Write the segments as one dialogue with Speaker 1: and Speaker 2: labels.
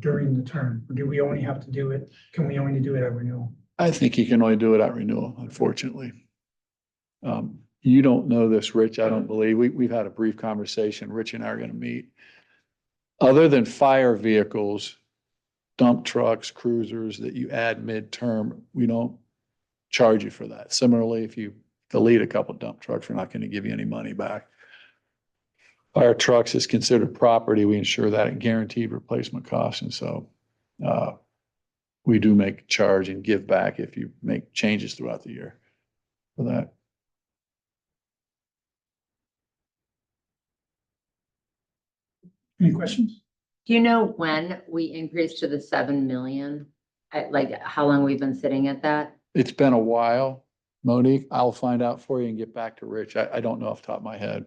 Speaker 1: during the term? Do we only have to do it, can we only do it at renewal?
Speaker 2: I think you can only do it at renewal, unfortunately. Um, you don't know this, Rich, I don't believe. We, we've had a brief conversation. Rich and I are gonna meet. Other than fire vehicles, dump trucks, cruisers that you add midterm, we don't charge you for that. Similarly, if you delete a couple dump trucks, we're not gonna give you any money back. Fire trucks is considered property. We ensure that at guaranteed replacement cost, and so, uh, we do make charge and give back if you make changes throughout the year for that.
Speaker 1: Any questions?
Speaker 3: Do you know when we increased to the seven million? At like, how long we've been sitting at that?
Speaker 2: It's been a while, Monique. I'll find out for you and get back to Rich. I, I don't know off the top of my head.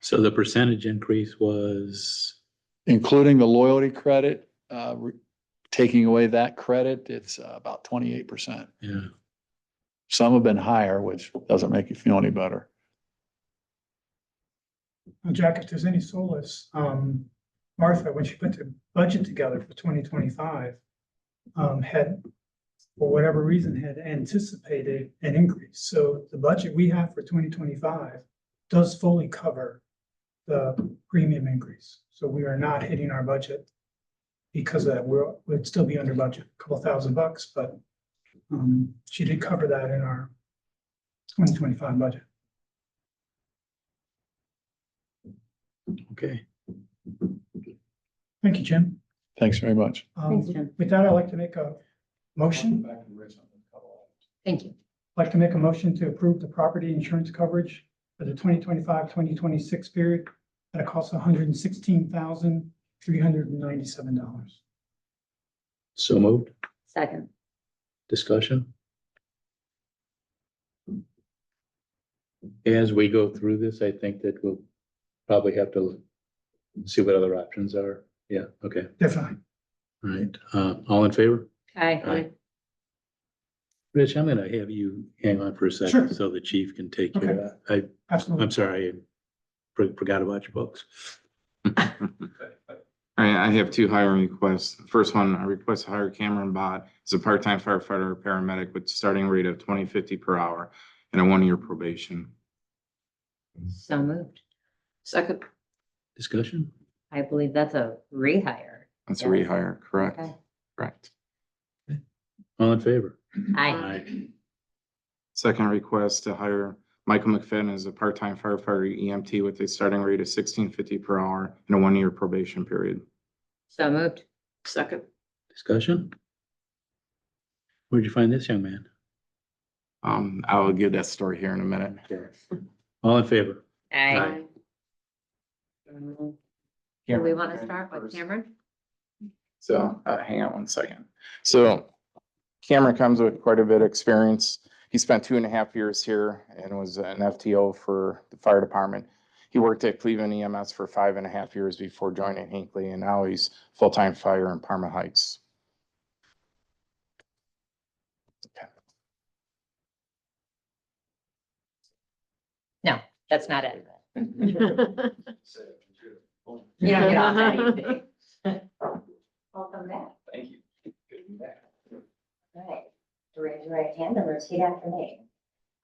Speaker 4: So the percentage increase was,
Speaker 2: Including the loyalty credit, uh, re- taking away that credit, it's uh, about twenty-eight percent.
Speaker 4: yeah,
Speaker 2: Some have been higher, which doesn't make you feel any better.
Speaker 1: Well, Jack, if there's any solace, um, Martha, when she put the budget together for twenty twenty-five, um, had, for whatever reason, had anticipated an increase. So the budget we have for twenty twenty-five does fully cover the premium increase. So we are not hitting our budget because of that we're, we'd still be under budget, a couple thousand bucks, but, um, she did cover that in our twenty twenty-five budget.
Speaker 4: okay.
Speaker 1: Thank you, Jim.
Speaker 2: Thanks very much.
Speaker 1: Um,
Speaker 3: Thanks, Jim.
Speaker 1: With that, I'd like to make a motion, I'd
Speaker 3: Thank you.
Speaker 1: like to make a motion to approve the property insurance coverage for the 2025-2026 period at a cost of hundred and sixteen thousand, three hundred and ninety-seven dollars.
Speaker 4: So moved,
Speaker 3: Second.
Speaker 4: discussion? As we go through this, I think that we'll probably have to see what other options are. Yeah, okay,
Speaker 1: Definitely.
Speaker 4: all right. Uh, all in favor?
Speaker 3: Aye.
Speaker 4: Aye. Rich, I'm gonna have you hang on for a
Speaker 1: Sure.
Speaker 4: second so the chief can take care of that. I,
Speaker 1: Absolutely.
Speaker 4: I'm sorry, I for- forgot about your books.
Speaker 5: I, I have two hiring requests. First one, I request to hire Cameron Bott as a part-time firefighter or paramedic with starting rate of twenty fifty per hour and a one-year probation.
Speaker 3: So moved. Second.
Speaker 4: Discussion?
Speaker 3: I believe that's a rehire.
Speaker 5: That's a
Speaker 3: Yeah.
Speaker 5: rehire, correct?
Speaker 3: Okay.
Speaker 5: Correct.
Speaker 4: All in favor?
Speaker 3: Aye.
Speaker 5: Second request to hire Michael McFadden as a part-time firefighter EMT with a starting rate of sixteen fifty per hour and a one-year probation period.
Speaker 3: So moved. Second.
Speaker 4: Discussion? Where'd you find this young man?
Speaker 5: Um, I will give that story here in a minute.
Speaker 4: All in favor?
Speaker 3: Aye.
Speaker 4: Aye.
Speaker 3: Do we want to start with Cameron?
Speaker 5: So, uh, hang on one second. So Cameron comes with quite a bit of experience. He spent two and a half years here and was an FTO for the fire department. He worked at Cleveland EMS for five and a half years before joining Hinckley and now he's full-time fire in Parma Heights.
Speaker 3: That's not it. You don't get off anything. Welcome back.
Speaker 5: Thank you.
Speaker 6: Alright, raise your right hand and repeat after me.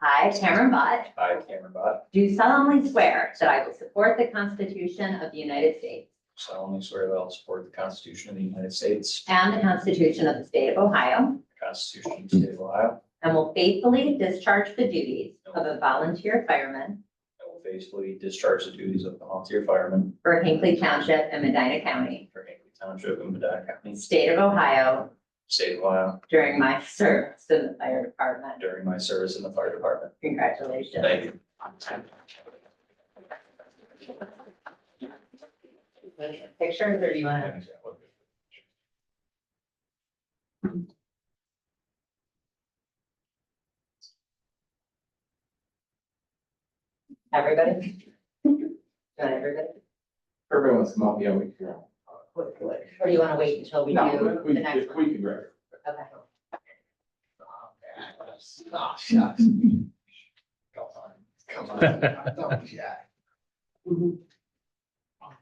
Speaker 6: I, Cameron Bott,
Speaker 7: I, Cameron Bott,
Speaker 6: do solemnly swear that I will support the Constitution of the United States
Speaker 7: solemnly swear that I will support the Constitution of the United States,
Speaker 6: and the Constitution of the State of Ohio,
Speaker 7: the Constitution of the State of Ohio,
Speaker 6: and will faithfully discharge the duties of a volunteer fireman
Speaker 7: and will faithfully discharge the duties of volunteer fireman
Speaker 6: for Hinckley Township and Medina County,
Speaker 7: for Hinkley Township and Medina County,
Speaker 6: State of Ohio,
Speaker 7: State of Ohio,
Speaker 6: during my service in the fire department.
Speaker 7: during my service in the fire department.
Speaker 6: Congratulations.
Speaker 7: Thank you.
Speaker 6: Pictures or do you want to? Everybody? You Want everybody?
Speaker 5: Everyone wants to come up, yeah, we can.
Speaker 6: Or do you want to wait until we do the next one?
Speaker 5: can grab.
Speaker 6: Okay.
Speaker 7: Oh, shucks. Come on, come on. Don't be shy.